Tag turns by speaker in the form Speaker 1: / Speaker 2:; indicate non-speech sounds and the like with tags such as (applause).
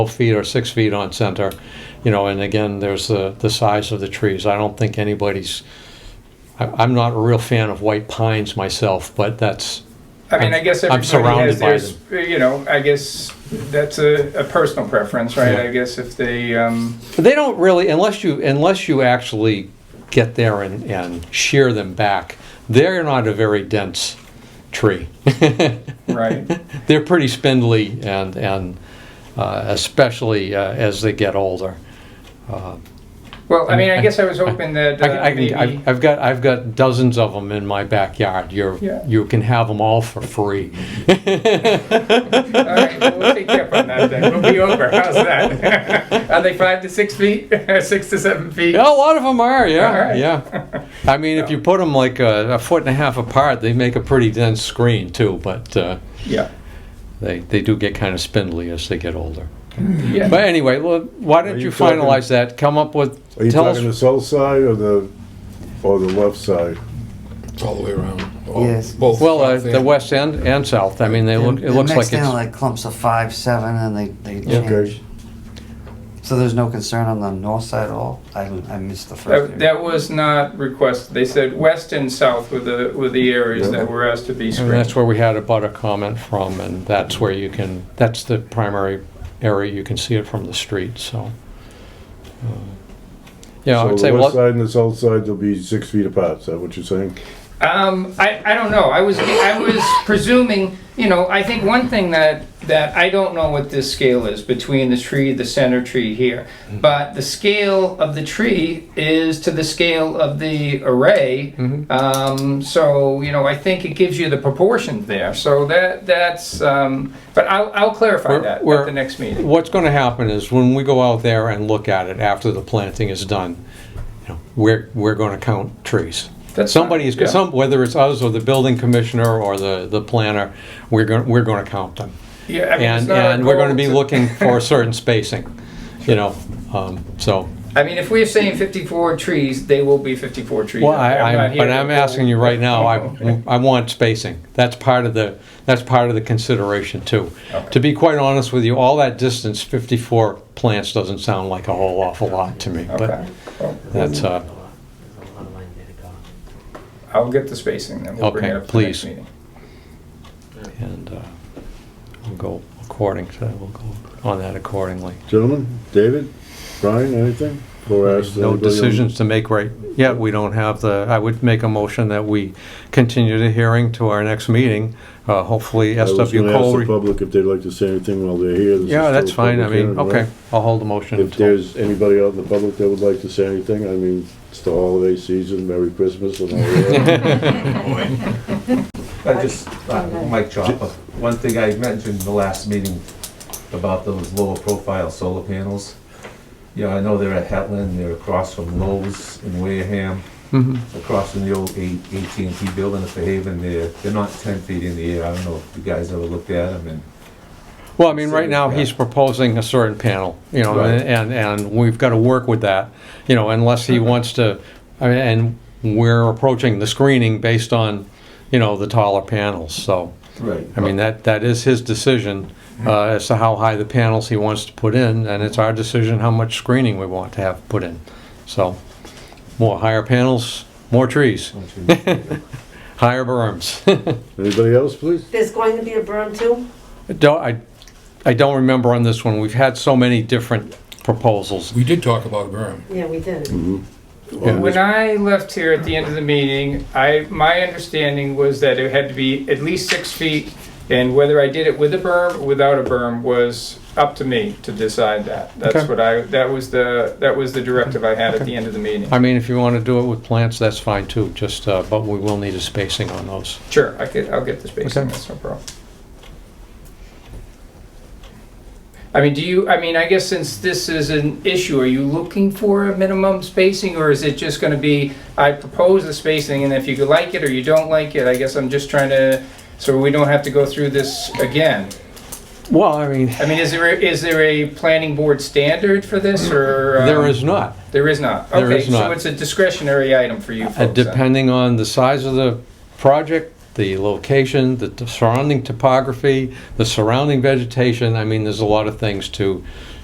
Speaker 1: 12 feet or six feet on center, you know, and again, there's the, the size of the trees. I don't think anybody's, I, I'm not a real fan of white pines myself, but that's,
Speaker 2: I mean, I guess
Speaker 1: I'm- I'm
Speaker 2: everybody has
Speaker 1: surrounded by
Speaker 2: theirs, you know, I guess that's a, a personal preference, right?
Speaker 1: Yeah.
Speaker 2: I guess if
Speaker 1: (laughs)
Speaker 2: they, um,
Speaker 1: they don't really, unless you, unless you actually get there and, and shear them back, they're not a very dense tree. (laughs)
Speaker 2: right,
Speaker 1: they're pretty spindly and and uh, especially uh, as they get older.
Speaker 2: well, I mean, I guess I was hoping that uh,
Speaker 1: I, I can,
Speaker 2: maybe,
Speaker 1: I've, I've got I've got dozens of them in my backyard. You're
Speaker 2: Yeah.
Speaker 1: you can have them all for free.
Speaker 2: all right, well, we'll take you up on that then, we'll be over, how's that? (laughs) Are they five to six feet, (laughs) six to seven feet?
Speaker 1: (laughs) yeah, a lot of them are. Yeah,
Speaker 2: All right.
Speaker 1: yeah. I mean, if you put them like a, a foot and a half apart, they make a pretty dense screen too. But uh,
Speaker 2: Yeah,
Speaker 1: they they do get kind of spindly as they get older. But
Speaker 2: yeah,
Speaker 1: anyway, well, why don't
Speaker 3: Are
Speaker 1: you,
Speaker 3: you
Speaker 1: finalize that? Come up with
Speaker 3: Are you
Speaker 1: tell
Speaker 3: talking the
Speaker 1: us.
Speaker 3: south side or the, or the left side?
Speaker 4: It's all the way around. All-
Speaker 5: Yes.
Speaker 4: Both.
Speaker 1: Well, uh,
Speaker 4: sides
Speaker 1: the
Speaker 4: and-
Speaker 1: west end and south. I mean, they look. It
Speaker 5: They're
Speaker 1: looks like
Speaker 5: mixed in
Speaker 1: it's
Speaker 5: like clumps of five, seven, and they, they
Speaker 1: Yeah.
Speaker 3: Okay.
Speaker 5: change. So there's no concern on the north side at all? I, I missed the first
Speaker 2: that,
Speaker 5: area.
Speaker 2: that was not requested, they said west and south were the, were the areas that were asked to be
Speaker 1: And that's
Speaker 2: screened.
Speaker 1: where we had about a comment from, and that's where you can, that's the primary area, you can see it from the street, so. uh, Yeah, I
Speaker 3: So
Speaker 1: would say,
Speaker 3: the west
Speaker 1: well,
Speaker 3: side and the south side will be six feet apart, is that what you're saying?
Speaker 2: Um, I, I don't know. I was I was presuming, you know, I think one thing that that I don't know what this scale is between the tree, the center tree here,
Speaker 1: Mm-hmm.
Speaker 2: but the scale of the tree is to the scale of the array.
Speaker 1: Mm-hmm.
Speaker 2: Um, so you know, I think it gives you the proportions there. So that that's. Um, but I'll, I'll clarify
Speaker 1: We're-
Speaker 2: that
Speaker 1: we're-
Speaker 2: at the next meeting.
Speaker 1: what's gonna happen is when we go out there and look at it after the planting is done, you know, we're, we're gonna count trees.
Speaker 2: That's fine,
Speaker 1: Somebody's,
Speaker 2: yeah.
Speaker 1: some, whether it's us or the building commissioner or the, the planner, we're gonna, we're gonna count them.
Speaker 2: Yeah, I mean, it's
Speaker 1: And,
Speaker 2: not our
Speaker 1: and we're gonna
Speaker 2: goal
Speaker 1: be
Speaker 2: to-
Speaker 1: looking
Speaker 2: (laughs)
Speaker 1: for a certain spacing, you know, um, so.
Speaker 2: I mean, if we're saying 54 trees, they will be 54 trees.
Speaker 1: Well,
Speaker 2: out
Speaker 1: I,
Speaker 2: there.
Speaker 1: I,
Speaker 2: not
Speaker 1: am
Speaker 2: here
Speaker 1: but
Speaker 2: to-
Speaker 1: I'm asking you right now,
Speaker 2: (laughs)
Speaker 1: I, I want spacing. That's part of the, that's part of the consideration too. To be quite honest with you, all that distance, fifty-four plants doesn't sound like a whole awful lot to me,
Speaker 2: Okay.
Speaker 1: but that's, uh,
Speaker 2: I'll get the spacing then. We'll bring
Speaker 1: Okay,
Speaker 2: it up to the next
Speaker 1: please.
Speaker 2: meeting.
Speaker 1: and, uh, we'll go according to, we'll go on that accordingly.
Speaker 3: Gentlemen, David, Brian, anything? Or ask
Speaker 1: No
Speaker 3: anybody on-
Speaker 1: decisions to make right, yet we don't have the, I would make a motion that we continue the hearing to our next meeting, uh, hopefully
Speaker 3: I was
Speaker 1: SW
Speaker 3: gonna ask the
Speaker 1: Cole.
Speaker 3: public if they'd like to say anything while they're here. This is
Speaker 1: Yeah,
Speaker 3: still
Speaker 1: that's
Speaker 3: a
Speaker 1: fine, I
Speaker 3: public
Speaker 1: mean,
Speaker 3: hearing, right?
Speaker 1: okay, I'll hold the motion
Speaker 3: If
Speaker 1: until.
Speaker 3: there's anybody out in the public that would like to say anything, I mean, it's the holiday season, Merry Christmas and all
Speaker 1: (laughs)
Speaker 3: that.
Speaker 6: I just, uh, Mike Chopper, one thing I mentioned the last meeting about those lower profile solar panels. Yeah, I know they're at Hetland, they're across from Lowe's in Wareham,
Speaker 1: Mhm.
Speaker 6: across from the old at and t building at the Haven, they're, they're not ten feet in the air, I don't know if you guys ever looked at them and.
Speaker 1: Well, I mean, right
Speaker 6: So,
Speaker 1: now,
Speaker 6: yeah.
Speaker 1: he's proposing a certain panel, you know,
Speaker 6: Right.
Speaker 1: and, and we've got to work with that, you know, unless he wants to, I mean, and we're approaching the screening based on, you know, the taller panels, so,
Speaker 6: Right.
Speaker 1: I mean, that, that is his decision
Speaker 3: Mm-hmm.
Speaker 1: uh, as to how high the panels he wants to put in, and it's our decision how much screening we want to have put in. So, more higher panels, more trees, higher berms.
Speaker 3: Anybody else, please?
Speaker 7: There's going to be a berm too?
Speaker 1: Don't, I, I don't remember on this one, we've had so many different proposals.
Speaker 4: We did talk about berm.
Speaker 7: Yeah, we did.
Speaker 2: When I left here at the end of the meeting, I, my understanding was that it had to be at least six feet, and whether I did it with a berm or without a berm was up to me to decide that.
Speaker 1: Okay.
Speaker 2: That's what I, that was the, that was the directive I had at the end of the meeting.
Speaker 1: I mean, if you want to do it with plants, that's fine too, just, uh, but we will need a spacing on those.
Speaker 2: Sure, I could, I'll get the spacing,
Speaker 1: Okay.
Speaker 2: that's no problem. I mean, do you, I mean, I guess since this is an issue, are you looking for a minimum spacing, or is it just gonna be, I propose the spacing, and if you like it or you don't like it, I guess I'm just trying to, so we don't have to go through this again.
Speaker 1: Well, I mean,
Speaker 2: I mean, is there, is there a planning board standard for this, or? um,
Speaker 1: there is not. uh,
Speaker 2: There is not?
Speaker 1: There is
Speaker 2: Okay,
Speaker 1: not.
Speaker 2: so it's a discretionary item for you folks?
Speaker 1: Uh,
Speaker 2: then?
Speaker 1: Depending on the size of the project, the location, the t- surrounding topography, the surrounding vegetation. I mean, there's a lot of things to